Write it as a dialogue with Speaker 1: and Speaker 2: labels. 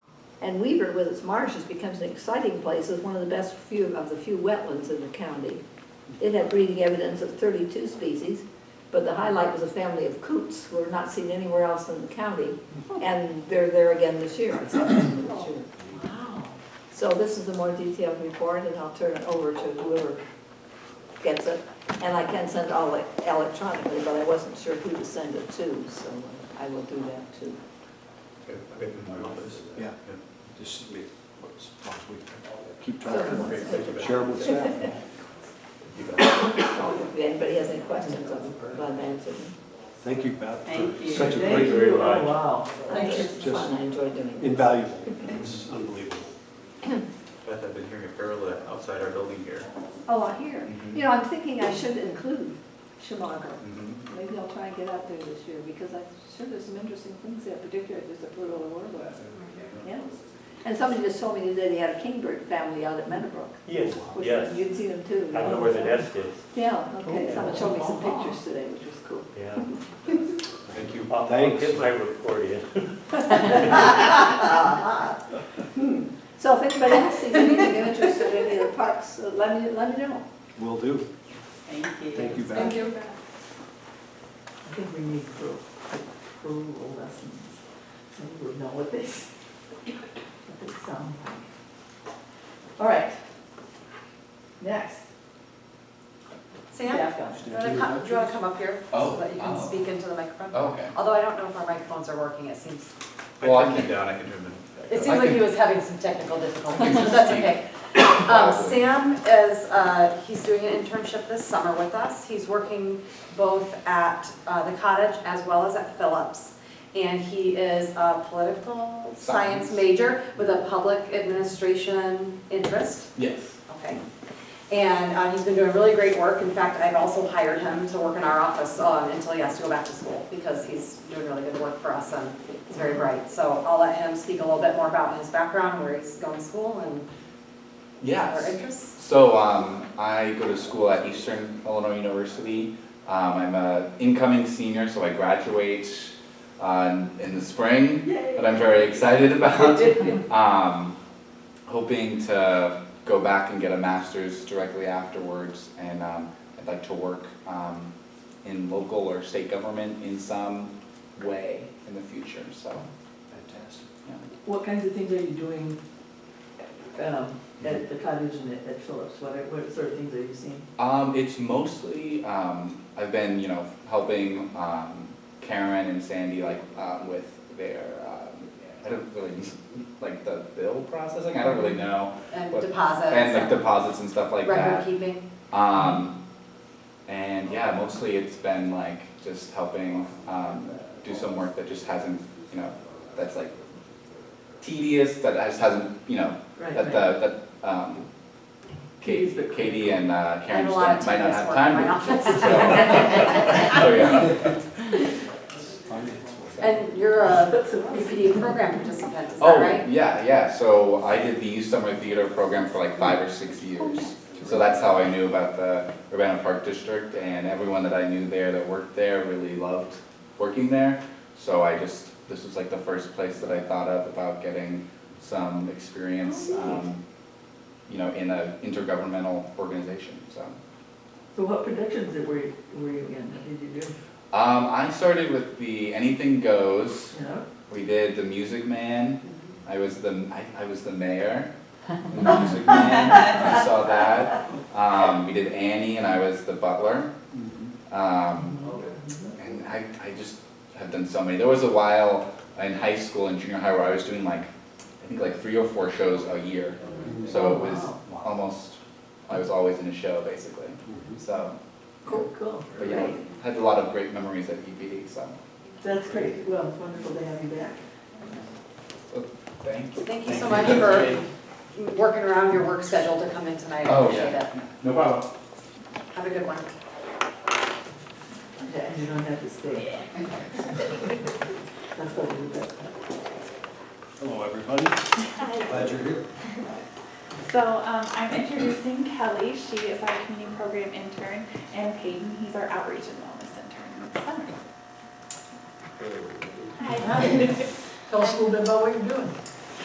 Speaker 1: And Weaver with its marshes becomes an exciting place as one of the best few, of the few wetlands in the county. It had breeding evidence of thirty-two species, but the highlight was a family of coots who are not seen anywhere else in the county. And they're there again this year, exceptionally this year.
Speaker 2: Wow.
Speaker 1: So this is a more detailed report, and I'll turn it over to whoever gets it. And I can send it all e- electronically, but I wasn't sure who to send it to, so I will do that too.
Speaker 3: Yeah.
Speaker 4: Just make, what's, last week.
Speaker 3: Keep track of
Speaker 1: So-
Speaker 3: it. Share with staff.
Speaker 1: So If anybody has any questions, I'm glad to answer them.
Speaker 4: Thank you, Beth. for
Speaker 2: Thank you.
Speaker 4: Such a
Speaker 2: Thank
Speaker 4: great,
Speaker 2: you.
Speaker 5: Oh, wow.
Speaker 2: Thank you.
Speaker 1: It's fun, I enjoy doing it.
Speaker 4: invaluable, it's unbelievable.
Speaker 3: Beth, I've been hearing a parallel outside our building here.
Speaker 6: Oh, I hear. You know, I'm thinking I should include Schumacher.
Speaker 3: Mhm.
Speaker 6: Maybe I'll try and get out there this year, because I'm sure there's some interesting things there, particularly if there's a brutal order.
Speaker 5: Mm-hmm.
Speaker 6: Yes. And somebody just told me today they had a kingbird family out at Meadowbrook.
Speaker 5: Yes,
Speaker 6: which
Speaker 5: yes.
Speaker 6: You'd see them too.
Speaker 5: I know where the nest is,
Speaker 6: Yeah, okay, someone showed me some pictures today, which was cool.
Speaker 5: yeah.
Speaker 3: Thank you.
Speaker 5: I'll- I'll
Speaker 4: Thanks.
Speaker 5: get my report in.
Speaker 6: So if anybody else sees anything of interest in any of the parks, uh, let me, let me know.
Speaker 4: Will do.
Speaker 2: Thank you.
Speaker 4: Thank you, Beth.
Speaker 2: you.
Speaker 7: I think we need pro- approval lessons, so we would know what this, what this sounds like. All right. Next.
Speaker 8: Sam, do you want to come, do you want to come up here?
Speaker 9: Oh,
Speaker 8: So that you can
Speaker 9: oh.
Speaker 8: speak into the microphone?
Speaker 9: Okay.
Speaker 8: Although I don't know if our microphones are working, it seems,
Speaker 3: I
Speaker 9: Well, I
Speaker 3: turned
Speaker 9: can-
Speaker 3: it down, I can turn it back
Speaker 8: it
Speaker 3: up.
Speaker 8: seems like he
Speaker 9: can-
Speaker 8: was having some technical difficulties, but that's okay. Um, Sam is, uh, he's doing an internship this summer with us. He's working both at, uh, the cottage as well as at Phillips. And he is a political science
Speaker 9: Science.
Speaker 8: major with a public administration interest.
Speaker 9: Yes.
Speaker 8: Okay. And uh, he's been doing really great work. In fact, I've also hired him to work in our office um, until he has to go back to school because he's doing really good work for us and he's very bright. So I'll let him speak a little bit more about his background, where he's going to school and our
Speaker 9: Yes.
Speaker 8: interests.
Speaker 9: So um, I go to school at Eastern Illinois University. Um, I'm an incoming senior, so I graduate uh, in the spring, that I'm very excited about. um, hoping to go back and get a master's directly afterwards, and um, I'd like to work um, in local or state government in some way in the future. So.
Speaker 4: Fantastic.
Speaker 9: Yeah.
Speaker 7: What kinds of things are you doing um, at the cottage and at at Phillips? What, are- what sort of things are you seeing?
Speaker 9: Um, it's mostly um, I've been you know helping um, Karen and Sandy like um, with their um, I don't really like the bill processing. I don't really know
Speaker 8: And
Speaker 9: What-
Speaker 8: deposits.
Speaker 9: and like deposits and stuff like
Speaker 8: Oh, Record
Speaker 9: that.
Speaker 8: keeping.
Speaker 9: Um, and yeah, mostly it's been like just helping um, do some work that just hasn't you know that's like tedious that just hasn't you know
Speaker 7: Right,
Speaker 9: that
Speaker 7: right.
Speaker 9: the that um, Katie,
Speaker 7: Katie's the-
Speaker 9: Katie and uh,
Speaker 8: I have
Speaker 9: Karen
Speaker 8: a
Speaker 9: just
Speaker 8: lot
Speaker 9: don't-
Speaker 8: of
Speaker 9: might not
Speaker 8: tedious work in
Speaker 9: have time.
Speaker 8: my
Speaker 9: to-
Speaker 8: office.
Speaker 9: so, so Oh, yeah.
Speaker 4: Finance.
Speaker 8: And you're a
Speaker 7: That's what I was-
Speaker 8: UPD program participant, is that
Speaker 9: Oh,
Speaker 8: right?
Speaker 9: yeah, yeah. So I did the youth summer theater program for like five or six
Speaker 8: Oh,
Speaker 9: years. So that's how I knew about the Urbana Park District, and everyone that I knew there that worked there really loved working there. So I just, this was like the first place that I thought of about getting some experience,
Speaker 8: Oh,
Speaker 9: um, you know, in an intergovernmental organization, so.
Speaker 7: So what productions that were, you- were you in? What did you do?
Speaker 9: Um, I started with the Anything Goes.
Speaker 7: You know?
Speaker 9: We did The Music Man. I was the, I, I was the mayor in The Music Man. You saw that. Um, we did Annie and I was the butler.
Speaker 5: Mm-hmm.
Speaker 9: Um, and I, I just have done so many. There was a while in high school and junior high where I was doing like, I think like three or four shows a year. So it was almost, I was always in a show basically.
Speaker 4: Mm-hmm.
Speaker 9: So,
Speaker 7: Cool, cool.
Speaker 9: but yeah,
Speaker 7: Great.
Speaker 9: had a lot of great memories at EPD, so,
Speaker 7: That's great. Well, it's wonderful to have you back.
Speaker 9: so thank you.
Speaker 8: Thank you so much for working around your work schedule to come in tonight. I
Speaker 9: Oh,
Speaker 8: appreciate it.
Speaker 9: yeah. No problem.
Speaker 8: Have a good one.
Speaker 7: Yeah, you don't have to stay. That's what we do.
Speaker 4: Hello, everybody. Glad you're here.
Speaker 2: So um, I'm introducing Kelly. She is our community program intern, and Peyton, he's our outreach and wellness intern this summer.
Speaker 8: Tell us a little bit about what you're doing.